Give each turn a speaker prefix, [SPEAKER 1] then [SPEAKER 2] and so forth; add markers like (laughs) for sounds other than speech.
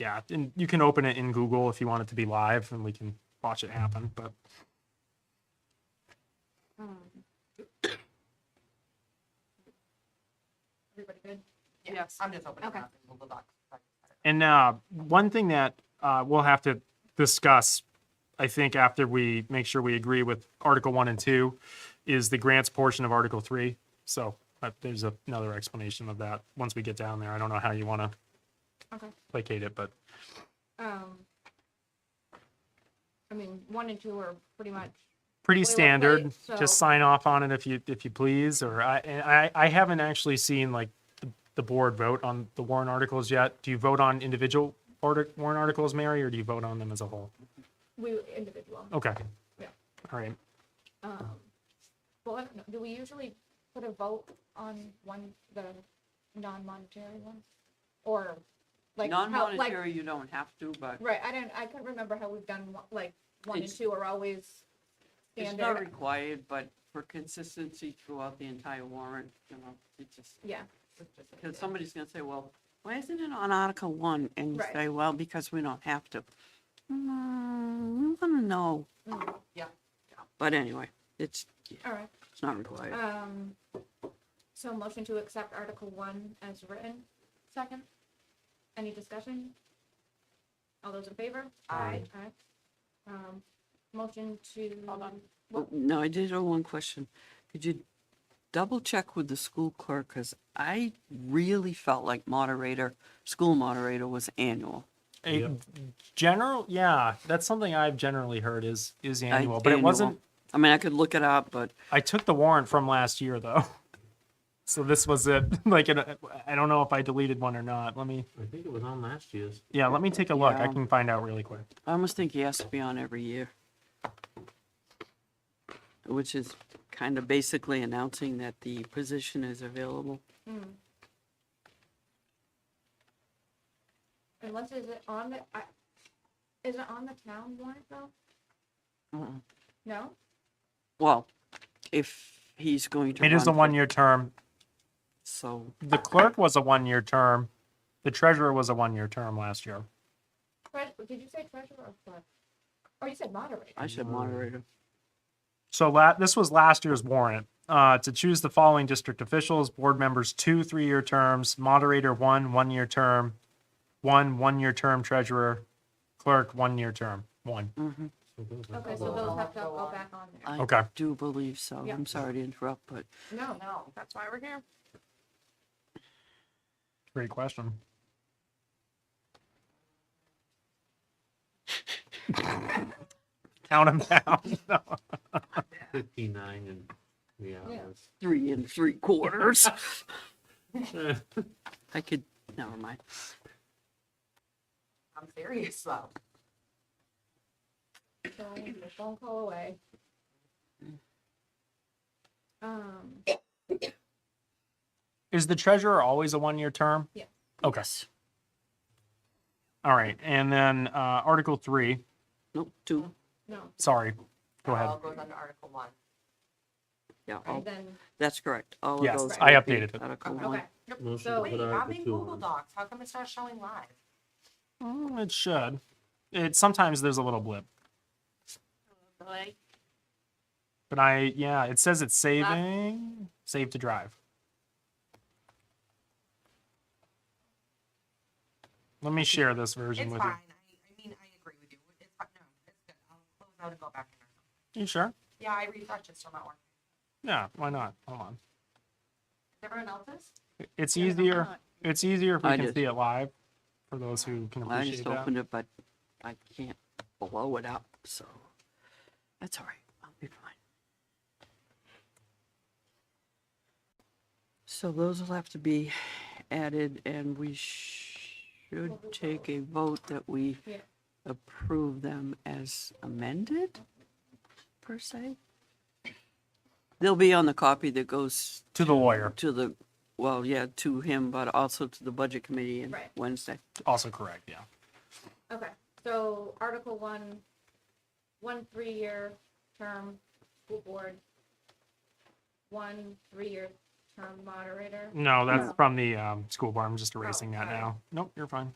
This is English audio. [SPEAKER 1] yeah, and you can open it in Google if you want it to be live, and we can watch it happen. But
[SPEAKER 2] Everybody good?
[SPEAKER 3] Yes.
[SPEAKER 2] I'm just opening it
[SPEAKER 3] Okay.
[SPEAKER 2] up in Google Docs.
[SPEAKER 1] and uh, one thing that uh, we'll have to discuss, I think, after we make sure we agree with Article One and Two, is the grants portion of Article Three. So uh, there's a, another explanation of that once we get down there. I don't know how you want to
[SPEAKER 3] Okay.
[SPEAKER 1] placate it, but
[SPEAKER 3] Um, I mean, one and two are pretty much,
[SPEAKER 1] pretty
[SPEAKER 3] We were
[SPEAKER 1] standard.
[SPEAKER 3] late, so-
[SPEAKER 1] Just sign off on it if you if you please. Or I and I, I haven't actually seen like the, the board vote on the warrant articles yet. Do you vote on individual artic, warrant articles, Mary, or do you vote on them as a whole?
[SPEAKER 3] we individual.
[SPEAKER 1] Okay.
[SPEAKER 3] Yeah.
[SPEAKER 1] All right.
[SPEAKER 3] Um, well, I don't know, do we usually put a vote on one, the non-monetary one? Or like? how- like-
[SPEAKER 2] Non-monetary, you don't have to, but
[SPEAKER 3] Right, I don't, I couldn't remember how we've done, one- like, one and
[SPEAKER 2] It's-
[SPEAKER 3] two are always
[SPEAKER 2] it's not
[SPEAKER 3] standard.
[SPEAKER 2] required, but for consistency throughout the entire warrant, you know, it just,
[SPEAKER 3] Yeah,
[SPEAKER 2] because somebody's gonna say, well, why isn't it on Article One? And you
[SPEAKER 3] Right.
[SPEAKER 2] say, well, because we don't have to. Mm, we wanna know.
[SPEAKER 3] Mm.
[SPEAKER 2] Yeah. But anyway, it's,
[SPEAKER 3] all right.
[SPEAKER 2] it's not required.
[SPEAKER 3] Um, so motion to accept Article One as written, second. Any discussion? All those in favor?
[SPEAKER 1] Aye.
[SPEAKER 3] Aye. Um, motion to.
[SPEAKER 2] Hold on.
[SPEAKER 3] Well-
[SPEAKER 2] No, I did have one question. Could you double check with the school clerk? Because I really felt like moderator, school moderator was annual.
[SPEAKER 1] A general, yeah, that's something I've generally heard is is
[SPEAKER 2] I-
[SPEAKER 1] annual, but it
[SPEAKER 2] annual.
[SPEAKER 1] wasn't.
[SPEAKER 2] I mean, I could look it up, but
[SPEAKER 1] I took the warrant from last year though, (laughs) so this was it. (laughs) Like, an- I don't know if I deleted one or not. Let me,
[SPEAKER 4] I think it was on last year's.
[SPEAKER 1] yeah, let me take a look. I
[SPEAKER 2] Yeah.
[SPEAKER 1] can find out really quick.
[SPEAKER 2] I almost think he has to be on every year. Which is kind of basically announcing that the position is available.
[SPEAKER 3] Hmm. Unless is it on the, I, is it on the town warrant though?
[SPEAKER 2] Mm-mm.
[SPEAKER 3] No?
[SPEAKER 2] Well, if he's going to.
[SPEAKER 1] It is
[SPEAKER 2] run
[SPEAKER 1] a
[SPEAKER 2] for-
[SPEAKER 1] one-year term.
[SPEAKER 2] So,
[SPEAKER 1] The clerk was a one-year term. The treasurer was a one-year term last year.
[SPEAKER 3] Tre- Did you say treasurer or clerk? Or you said moderator?
[SPEAKER 2] I said moderator.
[SPEAKER 1] So la- this was last year's warrant. Uh, to choose the following district officials, board members, two three-year terms, moderator, one one-year term, one one-year term treasurer, clerk, one-year term, one.
[SPEAKER 2] Mhm.
[SPEAKER 3] Okay, so those have to go back on there.
[SPEAKER 2] I
[SPEAKER 1] Okay.
[SPEAKER 2] do believe so.
[SPEAKER 3] Yeah.
[SPEAKER 2] I'm sorry to interrupt, but
[SPEAKER 3] No, no, that's why we're here.
[SPEAKER 1] Great question. Count them down. (laughs) No.
[SPEAKER 4] Fifty-nine and three
[SPEAKER 3] Yeah.
[SPEAKER 4] hours.
[SPEAKER 2] three and three quarters.
[SPEAKER 4] Eh,
[SPEAKER 2] I could, never mind.
[SPEAKER 5] I'm serious though.
[SPEAKER 3] So a phone call away. Um,
[SPEAKER 1] Is the treasurer always a one-year term?
[SPEAKER 3] Yeah.
[SPEAKER 1] Okay.
[SPEAKER 2] Yes.
[SPEAKER 1] All right. And then uh, Article Three.
[SPEAKER 2] Nope, two,
[SPEAKER 3] no,
[SPEAKER 1] Sorry. Go
[SPEAKER 5] It
[SPEAKER 1] ahead.
[SPEAKER 5] All goes under Article One.
[SPEAKER 2] yeah, all-
[SPEAKER 4] Oh.
[SPEAKER 3] and then,
[SPEAKER 2] that's correct. All of
[SPEAKER 1] Yes,
[SPEAKER 2] those
[SPEAKER 1] I
[SPEAKER 2] would be
[SPEAKER 1] updated it.
[SPEAKER 2] Article
[SPEAKER 3] okay,
[SPEAKER 2] one.
[SPEAKER 4] Motion
[SPEAKER 3] So
[SPEAKER 4] to
[SPEAKER 3] But
[SPEAKER 5] Wait,
[SPEAKER 4] put
[SPEAKER 5] I'm
[SPEAKER 4] Article
[SPEAKER 5] in
[SPEAKER 4] two
[SPEAKER 5] Google
[SPEAKER 4] on.
[SPEAKER 5] Docs. How come it's not showing live?
[SPEAKER 1] Mm, It should. It sometimes there's a little blip,
[SPEAKER 5] Really?
[SPEAKER 1] but I yeah, it says it's saving, save to drive. Let me share this version
[SPEAKER 5] It's
[SPEAKER 1] with
[SPEAKER 5] fine. I, I mean, I agree with you. It's fine. No, it's good. I'll close out and go back. in.
[SPEAKER 1] you. You sure?
[SPEAKER 5] Yeah, I refreshed it, still not working.
[SPEAKER 1] Yeah, why not? Hold on.
[SPEAKER 5] Is Everyone else's?
[SPEAKER 1] It's easier. It's easier if we
[SPEAKER 2] I
[SPEAKER 1] can
[SPEAKER 2] just-
[SPEAKER 1] see it live for those who can
[SPEAKER 2] I
[SPEAKER 1] appreciate
[SPEAKER 2] just
[SPEAKER 1] that.
[SPEAKER 2] opened it, but I can't blow it up, so that's all right. I'll be fine. So those will have to be added and we should take a vote that we
[SPEAKER 3] Yeah.
[SPEAKER 2] approve them as amended, per se. They'll be on the copy that goes
[SPEAKER 1] to the lawyer,
[SPEAKER 2] to the, well, yeah, to him, but also to the budget committee on
[SPEAKER 3] Right.
[SPEAKER 2] Wednesday.
[SPEAKER 1] also correct. Yeah.
[SPEAKER 3] okay, so Article one, one three-year term school board, one three-year term moderator,
[SPEAKER 1] No, that's
[SPEAKER 3] No.
[SPEAKER 1] from the um, school board. I'm just erasing that
[SPEAKER 3] sorry.
[SPEAKER 1] now. Nope, you're fine.